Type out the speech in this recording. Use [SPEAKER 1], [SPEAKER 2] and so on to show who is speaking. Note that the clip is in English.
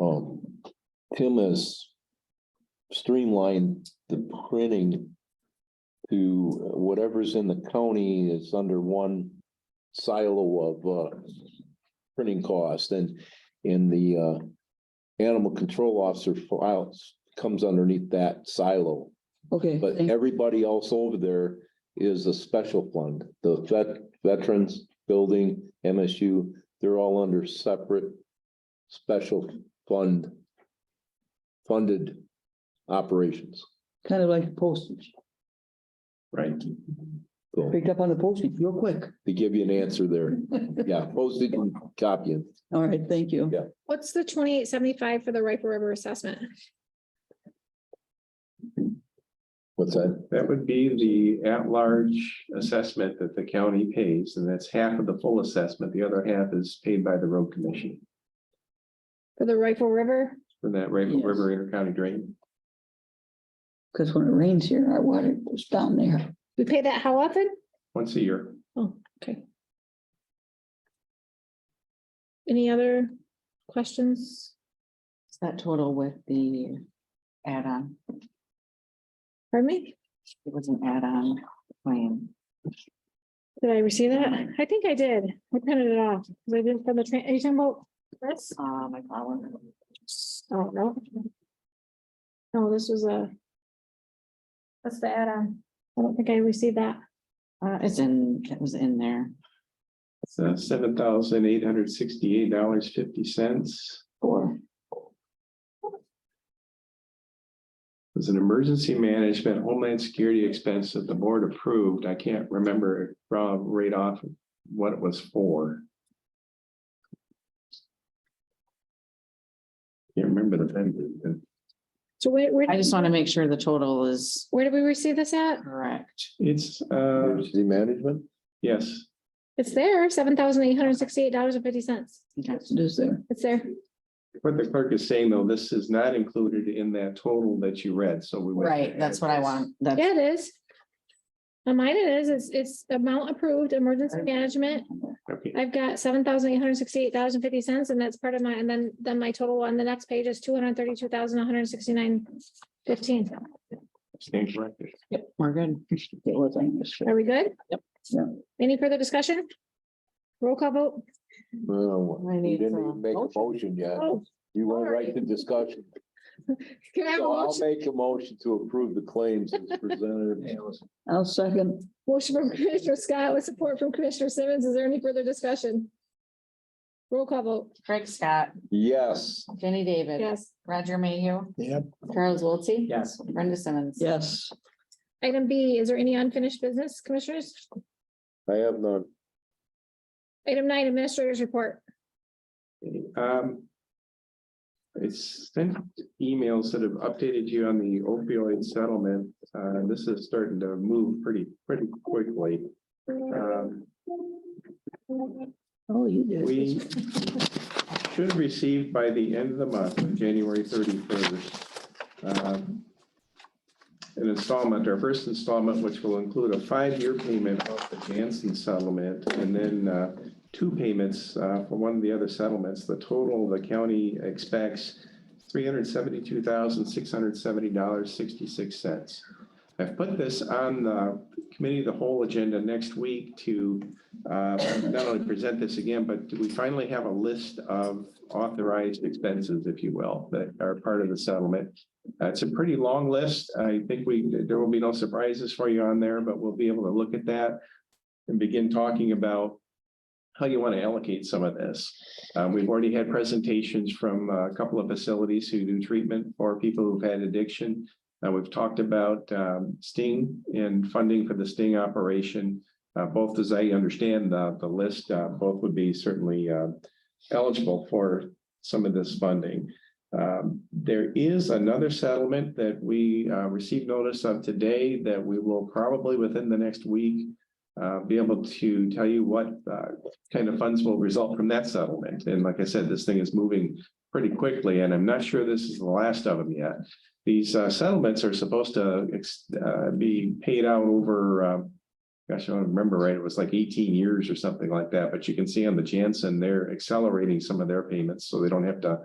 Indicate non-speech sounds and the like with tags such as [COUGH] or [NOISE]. [SPEAKER 1] Um, Tim has streamlined the printing to whatever's in the county is under one silo of, uh, printing cost and, in the, uh, animal control officer files comes underneath that silo.
[SPEAKER 2] Okay,
[SPEAKER 1] But
[SPEAKER 2] thank-
[SPEAKER 1] everybody else over there is a special fund, the vet, veterans, building, MSU, they're all under separate special fund funded operations.
[SPEAKER 2] kind of like postage.
[SPEAKER 1] Right. So
[SPEAKER 2] Picked up on the postage real quick.
[SPEAKER 1] to give you an answer there, yeah, postage and copying,
[SPEAKER 2] All right, thank you.
[SPEAKER 1] Yeah.
[SPEAKER 3] What's the twenty-eight seventy-five for the Rifle River assessment?
[SPEAKER 1] what's that?
[SPEAKER 4] That would be the at-large assessment that the county pays, and that's half of the full assessment. The other half is paid by the road commission.
[SPEAKER 3] For the Rifle River?
[SPEAKER 4] For that Rainbow
[SPEAKER 2] Yes.
[SPEAKER 4] River Intercounty Drain,
[SPEAKER 2] Because when it rains here, our water goes down there.
[SPEAKER 3] We pay that how often?
[SPEAKER 4] once a year.
[SPEAKER 3] Oh, okay. Any other questions?
[SPEAKER 5] Is that total with the add-on?
[SPEAKER 3] Pardon me?
[SPEAKER 5] It was an add-on claim.
[SPEAKER 3] Did I receive that? I think I did. I printed it off. Was I didn't from the train, are you talking about this?
[SPEAKER 5] Uh, my problem.
[SPEAKER 3] I don't know. No, this was a. That's the add-on. I don't think I received that.
[SPEAKER 5] Uh, it's in, it was in there.
[SPEAKER 4] It's seven thousand eight hundred sixty-eight dollars fifty cents.
[SPEAKER 2] Or
[SPEAKER 4] It's an emergency management homeland security expense that the board approved. I can't remember uh, right off what it was for. Can't remember the vendor, but
[SPEAKER 3] So where, where,
[SPEAKER 5] I just want to make sure the total is
[SPEAKER 3] where did we receive this at?
[SPEAKER 5] correct.
[SPEAKER 4] it's, uh,
[SPEAKER 1] Emergency management?
[SPEAKER 4] yes.
[SPEAKER 3] It's there, seven thousand eight hundred sixty-eight dollars and fifty cents.
[SPEAKER 5] Okay.
[SPEAKER 2] it is there.
[SPEAKER 3] It's there.
[SPEAKER 4] What the clerk is saying, though, this is not included in that total that you read, so we. would-
[SPEAKER 5] Right, that's what I want. That's
[SPEAKER 3] Yeah, it is. On mine it is, it's, it's amount approved, emergency management.
[SPEAKER 4] Okay,
[SPEAKER 3] I've got seven thousand eight hundred sixty-eight dollars and fifty cents and that's part of my, and then, then my total on the next page is two hundred thirty-two thousand one hundred sixty-nine fifteen.
[SPEAKER 4] stand corrected.
[SPEAKER 5] Yep, we're good.
[SPEAKER 2] It was on this.
[SPEAKER 3] Are we good?
[SPEAKER 5] Yep.
[SPEAKER 2] Yeah.
[SPEAKER 3] Any further discussion? Roll call vote.
[SPEAKER 1] Well,
[SPEAKER 5] I
[SPEAKER 1] you
[SPEAKER 5] need
[SPEAKER 1] didn't
[SPEAKER 5] some
[SPEAKER 1] even make a motion yet,
[SPEAKER 3] Oh,
[SPEAKER 1] you went right to discussion.
[SPEAKER 3] Can I have a
[SPEAKER 1] So I'll
[SPEAKER 3] motion?
[SPEAKER 1] make a motion to approve the claims as presented.
[SPEAKER 2] I'll second.
[SPEAKER 3] Motion from [LAUGHS] Commissioner Scott with support from Commissioner Simmons. Is there any further discussion? Roll call vote.
[SPEAKER 5] Craig Scott,
[SPEAKER 1] Yes.
[SPEAKER 5] Jenny David,
[SPEAKER 3] Yes.
[SPEAKER 5] Roger Mayhew.
[SPEAKER 1] Yep.
[SPEAKER 5] Charles Wiltie.
[SPEAKER 4] Yes.
[SPEAKER 5] Brenda Simmons.
[SPEAKER 2] Yes.
[SPEAKER 3] Item B, is there any unfinished business, Commissioners?
[SPEAKER 1] I have none.
[SPEAKER 3] Item nine, Administrator's Report.
[SPEAKER 4] Um. It's sent emails that have updated you on the opioid settlement. Uh, this is starting to move pretty, pretty quickly. Um,
[SPEAKER 2] Oh, you did.
[SPEAKER 4] we should receive by the end of the month, on January thirty-first. An installment, our first installment, which will include a five-year payment off the Janssen settlement and then uh, two payments uh, for one of the other settlements. The total, the county expects three hundred seventy-two thousand, six hundred seventy dollars, sixty-six cents. I've put this on the committee of the whole agenda next week to uh, not only present this again, but do we finally have a list of authorized expenses, if you will, that are part of the settlement. Uh, It's a pretty long list. I think we, there will be no surprises for you on there, but we'll be able to look at that and begin talking about how you want to allocate some of this. Uh, We've already had presentations from uh, a couple of facilities who do treatment for people who've had addiction. Uh, We've talked about um, Sting and funding for the Sting operation. Uh, both, as I understand the, the list, uh, both would be certainly, uh, eligible for some of this funding. Um, there is another settlement that we, uh, received notice of today that we will probably within the next week, uh, be able to tell you what, uh, kind of funds will result from that settlement. And like I said, this thing is moving pretty quickly, and I'm not sure this is the last of them yet. These, uh, settlements are supposed to, ex- uh, be paid out over, um, gosh, I don't remember right, it was like eighteen years or something like that, but you can see on the Jansen, they're accelerating some of their payments, so they don't have to